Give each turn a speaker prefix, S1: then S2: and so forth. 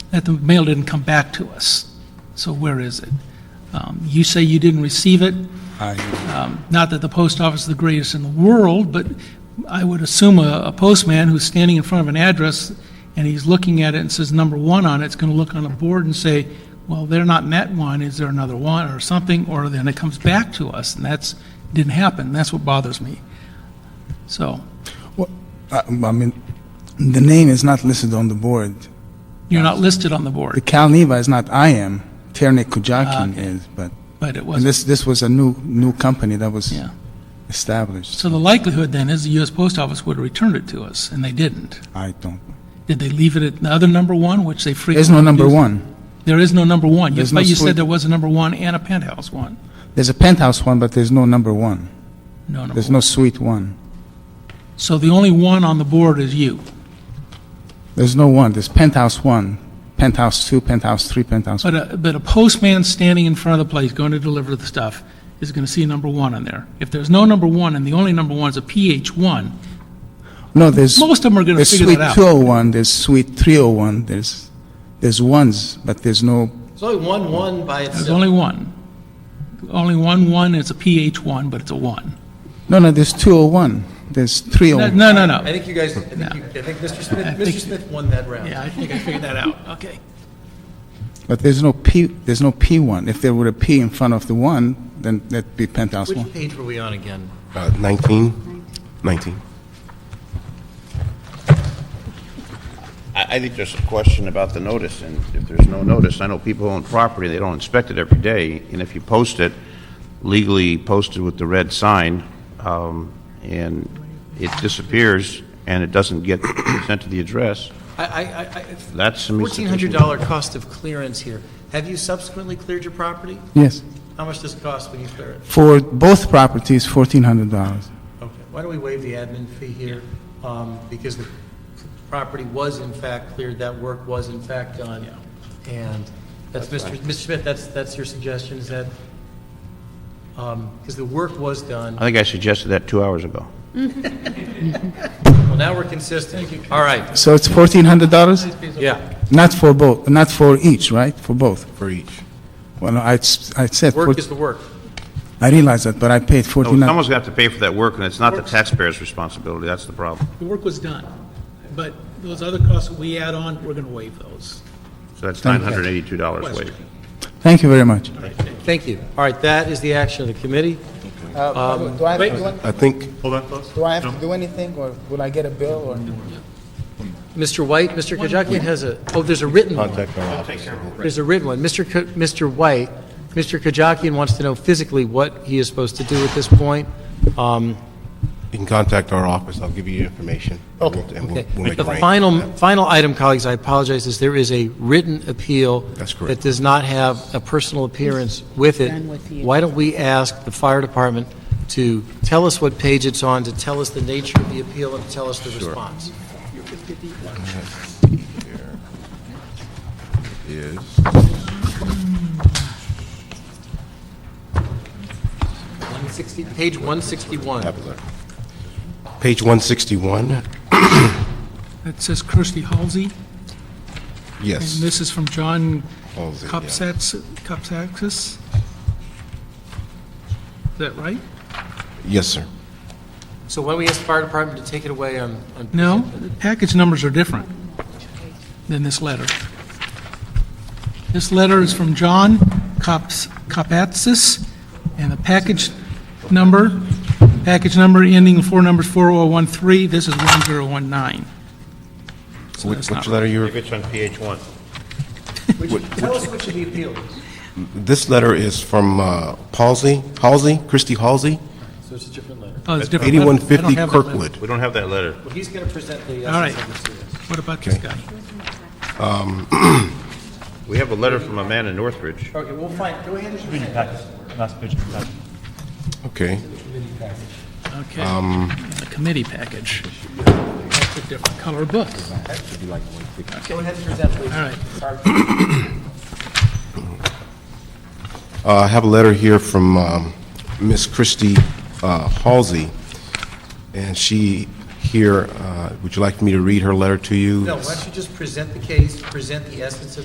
S1: that the mail didn't come back to us. So where is it? Um, You say you didn't receive it. Um,
S2: I,
S1: Not that the post office is the greatest in the world, but I would assume a a postman who's standing in front of an address and he's looking at it and says number one on it, it's going to look on a board and say, well, they're not in that one, is there another one or something? Or then it comes back to us, and that's, didn't happen. That's what bothers me. So
S2: well, I, I mean, the name is not listed on the board.
S1: you're not listed on the
S2: The
S1: board,
S2: Calneva is not I am. Ternek
S1: Ah,
S2: Kujakin is, but
S1: but it
S2: and
S1: wasn't.
S2: this this was a new new company that was
S1: Yeah.
S2: established.
S1: So the likelihood then is the U.S. Post Office would have returned it to us, and they didn't.
S2: I don't.
S1: Did they leave it at the other number one, which they frequently
S2: There's no number
S1: do?
S2: one.
S1: There is no number one. You-
S2: There's no
S1: But you
S2: split.
S1: said there was a number one and a penthouse one.
S2: There's a penthouse one, but there's no number one.
S1: No number
S2: There's
S1: one.
S2: no suite one.
S1: So the only one on the board is you.
S2: There's no one. There's penthouse one, penthouse two, penthouse three, penthouse.
S1: But a, but a postman standing in front of the place going to deliver the stuff is going to see number one on there. If there's no number one and the only number one is a PH one,
S2: no, there's
S1: most of them are going to
S2: there's
S1: figure
S2: suite
S1: that
S2: two
S1: out.
S2: hundred one. There's suite three hundred one. There's there's ones, but there's no
S3: There's only one one by
S1: There's
S3: itself.
S1: only one. Only one one, it's a PH one, but it's a one.
S2: no no. There's two hundred one. There's three oh
S1: No,
S2: hundred.
S1: no, no,
S3: I
S1: no.
S3: think you guys, I think, you- I think Mr. Smith,
S1: I think-
S3: Mr. Smith won that round.
S1: Yeah, I think I figured that out. Okay.
S2: But there's no P, there's no P1. If there were a P in front of the 1, then that'd be penthouse
S3: Which
S2: 1.
S3: page were we on again?
S4: Uh, 19? 19.
S5: I, I think there's a question about the notice, and if there's no notice, I know people own property, they don't inspect it every day, and if you post it, legally posted with the red sign, um, and it disappears, and it doesn't get sent to the address,
S3: I, I, I- I,
S5: that's some
S3: fourteen hundred dollar cost of clearance here. Have you subsequently cleared your property?
S2: Yes.
S3: How much does it cost when you clear it?
S2: For both properties, $1,400.
S3: Okay, why don't we waive the admin fee here? Um, because the property was in fact cleared, that work was in fact done. And that's Mr. Mr. Smith, that's, that's your suggestion, is that, um, because the work was done.
S5: I think I suggested that two hours ago.
S3: Well, now we're consistent. All right,
S2: So it's $1,400?
S3: yeah.
S2: Not for both, not for each, right? For both.
S4: For each.
S2: Well, I, I said,
S3: Work
S2: four-
S3: is the work.
S2: I realized that, but I paid
S5: So Someone's
S2: $1,400.
S5: gonna have to pay for that work, and it's not the taxpayer's responsibility, that's the problem.
S1: The work was done, but those other costs that we add on, we're going to waive those.
S5: So that's
S2: Thank you.
S5: $982 waived.
S2: Thank you very much.
S3: Thank you. All right, that is the action of the committee.
S2: Do I, do I-
S4: I think,
S6: Hold on, folks.
S2: do I have to do anything, or will I get a bill, or?
S3: Mr. White, Mr. Kajakian has a, oh, there's a written one.
S4: contact our office.
S3: There's a written one. Mr. K- Mr. White, Mr. Kajakian wants to know physically what he is supposed to do at this point. Um,
S4: You can contact our office, I'll give you your information. Okay. And we'll-
S3: Okay.
S4: we'll make
S3: The
S4: arrangements.
S3: final, final item, colleagues, I apologize, is there is a written appeal.
S4: That's correct.
S3: That does not have a personal appearance with it.
S7: Done with you.
S3: Why don't we ask the fire department to tell us what page it's on, to tell us the nature of the appeal, and to tell us the response?
S4: Is-
S3: One sixty, page one sixty-one.
S4: have it there. Page 161,
S1: That says Kirsty Halsey, and
S4: yes.
S1: this is from John
S4: Halsey, yeah.
S1: Kupsats, Kupsakis. Is that right?
S4: Yes, sir.
S3: So why don't we ask the fire department to take it away on? on-
S1: No, the package numbers are different than this letter. This letter is from John Kops- Kopatsis, and the package number, package number ending in four numbers 4013, this is 1019. So
S4: Which
S1: that's
S4: which
S1: not
S4: letter you,
S5: If it's on PH one.
S3: Tell us which of the appeal is.
S4: this letter is from uh, Halsey, Halsey, Christie Halsey,
S3: So it's a different letter.
S1: Oh, it's different. I don't- I don't
S4: 8150
S1: have that letter.
S4: Kirkwood.
S5: We don't have that letter.
S3: Well, he's going to present the
S1: All right.
S3: essence of this.
S1: What about this guy?
S5: We have a letter from a man in Northridge.
S3: Okay, we'll find, go ahead and.
S4: Okay.
S1: Okay. The committee package. That's a different color book.
S3: Go ahead and present, please.
S1: All right.
S4: Uh, I have a letter here from um, Miss Christie uh, Halsey, and she here, uh, would you like me to read her letter to you?
S3: No, why don't you just present the case, present the essence of